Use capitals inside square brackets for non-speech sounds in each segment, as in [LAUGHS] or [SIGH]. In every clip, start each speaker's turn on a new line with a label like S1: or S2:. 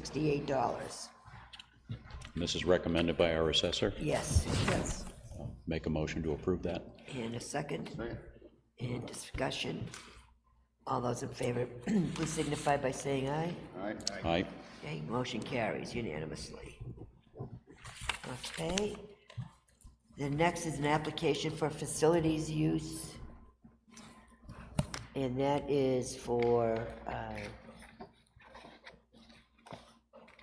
S1: sixty-eight dollars.
S2: And This is recommended by our assessor.
S1: Yes. Yes.
S2: Make a motion to approve that.
S1: And a second. And discussion. All those in favor, [CLEARS THROAT] please signify by saying aye.
S2: Aye.
S1: Okay, motion carries unanimously. Okay. The next is an application for facilities use. And that is for, uh,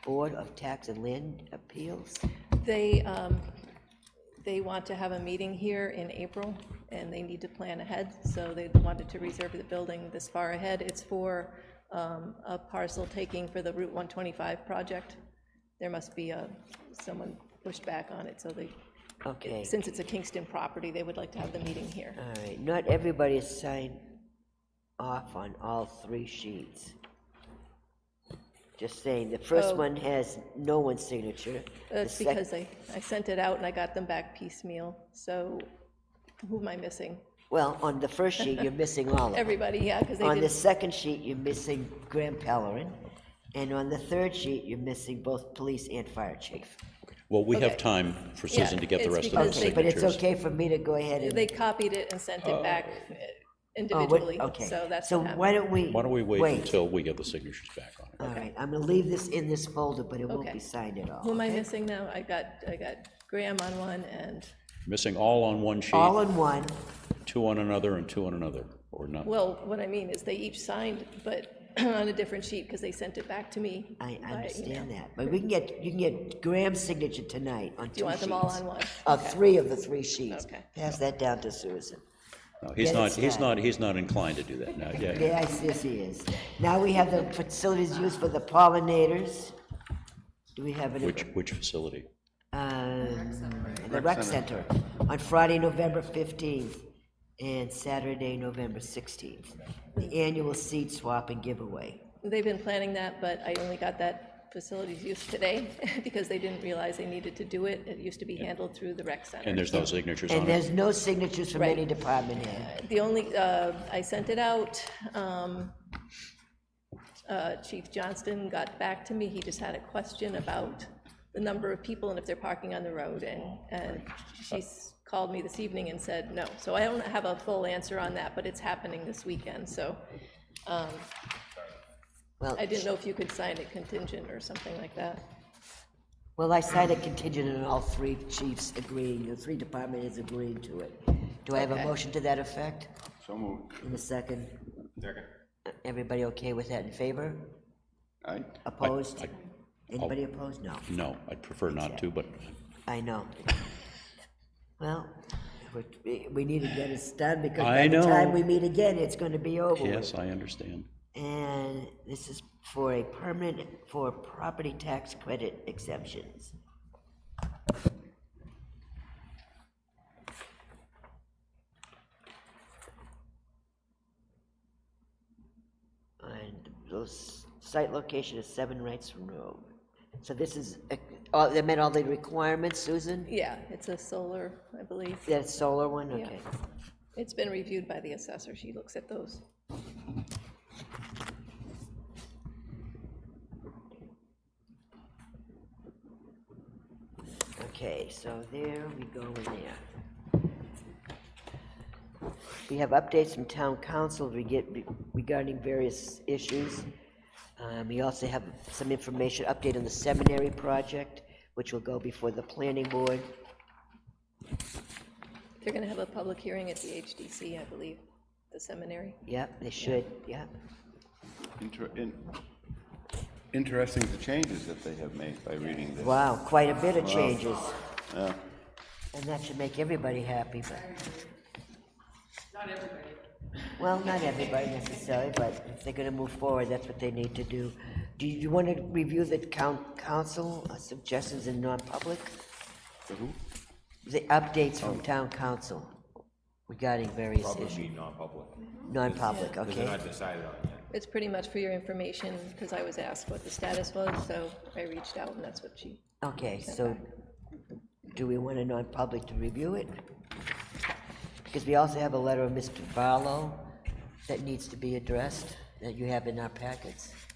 S1: Board of Tax and Land Appeals.
S3: They, um, they want to have a meeting here in April, and they need to plan ahead, so they wanted to reserve the building this far ahead. It's for um, a parcel taking for the Route 125 project. There must be a, someone pushed back on it, so they,
S1: Okay.
S3: since it's a Kingston property, they would like to have the meeting here.
S1: All right, not everybody has signed off on all three sheets. Just saying, the first
S3: Oh.
S1: one has no one's signature. the
S3: That's
S1: sec-
S3: because I, I sent it out and I got them back piecemeal, so who am I missing?
S1: Well, on the first sheet, you're missing
S3: [LAUGHS]
S1: all of them.
S3: Everybody, yeah, because they
S1: On the
S3: did,
S1: second sheet, you're missing Graham Pellerin, and on the third sheet, you're missing both police and fire chief.
S2: Well, we have
S3: Okay.
S2: time for Susan
S3: Yeah,
S2: to get the
S3: it's
S2: rest of the
S1: Okay,
S3: because they-
S2: signatures.
S1: but it's okay for me to go ahead and.
S3: they copied it and sent it back uh,
S1: Oh, what-
S3: individually,
S1: okay.
S3: so that's what
S1: So
S3: happened.
S1: why don't we?
S2: Why don't we wait until we get the signatures back on it?
S1: All right, I'm gonna leave this in this folder, but it won't
S3: Okay.
S1: be signed at all.
S3: Who am I
S1: okay?
S3: missing now? I got, I got Graham on one and,
S2: Missing all on one sheet,
S1: All in one.
S2: two on another, and two on another, or not?
S3: well, what I mean is they each signed, but [CLEARS THROAT] on a different sheet because they sent it back to me.
S1: I I
S3: by
S1: understand
S3: email.
S1: that, but we can get, you can get Graham's signature tonight on two sheets.
S3: You want them all on one?
S1: Uh, three of the three sheets.
S3: Okay.
S1: Pass that down to Susan.
S2: No, he's
S1: Get it
S2: not, he's
S1: started.
S2: not, he's not inclined to do that now, yeah.
S1: Yeah, yes, yes, he is. Now we have the facilities used for the pollinators. Do we have any?
S2: Which, which facility?
S1: The rec center, on Friday, November 15th, and Saturday, November 16th. The annual seed swap and giveaway.
S3: They've been planning that, but I only got that facilities use today [LAUGHS] because they didn't realize they needed to do it. It used to be handled through the rec center.
S2: And there's no signatures
S1: And
S2: on it?
S1: there's no signatures from
S3: Right.
S1: any department head.
S3: The only, uh, I sent it out, um, uh, Chief Johnston got back to me, he just had a question about the number of people and if they're parking on the road, and, and she's called me this evening and said no. So I don't have a full answer on that, but it's happening this weekend, so
S1: Well,
S3: I didn't know if you could sign it contingent or something like that.
S1: Well, I signed a contingent on all three chiefs agreeing, the three department heads agreeing to it. Do I have a
S3: Okay.
S1: motion to that effect?
S4: So moved.
S1: In a second,
S4: Second.
S1: everybody okay with that in favor?
S4: Aye.
S1: Opposed?
S2: I- oh.
S1: Anybody opposed? No,
S2: No, I'd prefer not to, but
S1: I know. Well, we, we need to get it done because by
S2: I
S1: the
S2: know.
S1: time we meet again, it's gonna be over with.
S2: yes, I understand.
S1: And this is for a permanent, for property tax credit exemptions. And those site location is Seven Rights Road. So this is, uh, all- they met all the requirements, Susan?
S3: Yeah, it's a solar, I believe.
S1: That solar one, okay.
S3: It's been reviewed by the assessor, she looks at those.
S1: Okay, so there we go in there. We have updates from town council we get regarding various issues. Um, We also have some information, update on the seminary project, which will go before the planning board.
S3: They're gonna have a public hearing at the HDC, I believe, the seminary.
S1: Yep, they should, yep.
S4: Inter- in- Interesting the changes that they have made by reading this.
S1: Wow, quite a bit of changes. And that should make everybody happy, but. Not everybody. Well, not everybody necessarily, but if they're gonna move forward, that's what they need to do. Do you want to review the coun- council uh, suggestions in non-public?
S4: The who?
S1: The updates from town council regarding various issues,
S5: Probably non-public,
S1: non-public,
S5: because they're
S1: okay?
S5: not decided on yet.
S3: It's pretty much for your information, because I was asked what the status was, so I reached out, and that's what she,
S1: Okay, so do we want a non-public to review it? Because we also have a letter of Mr. Barlow that needs to be addressed, that you have in our packets.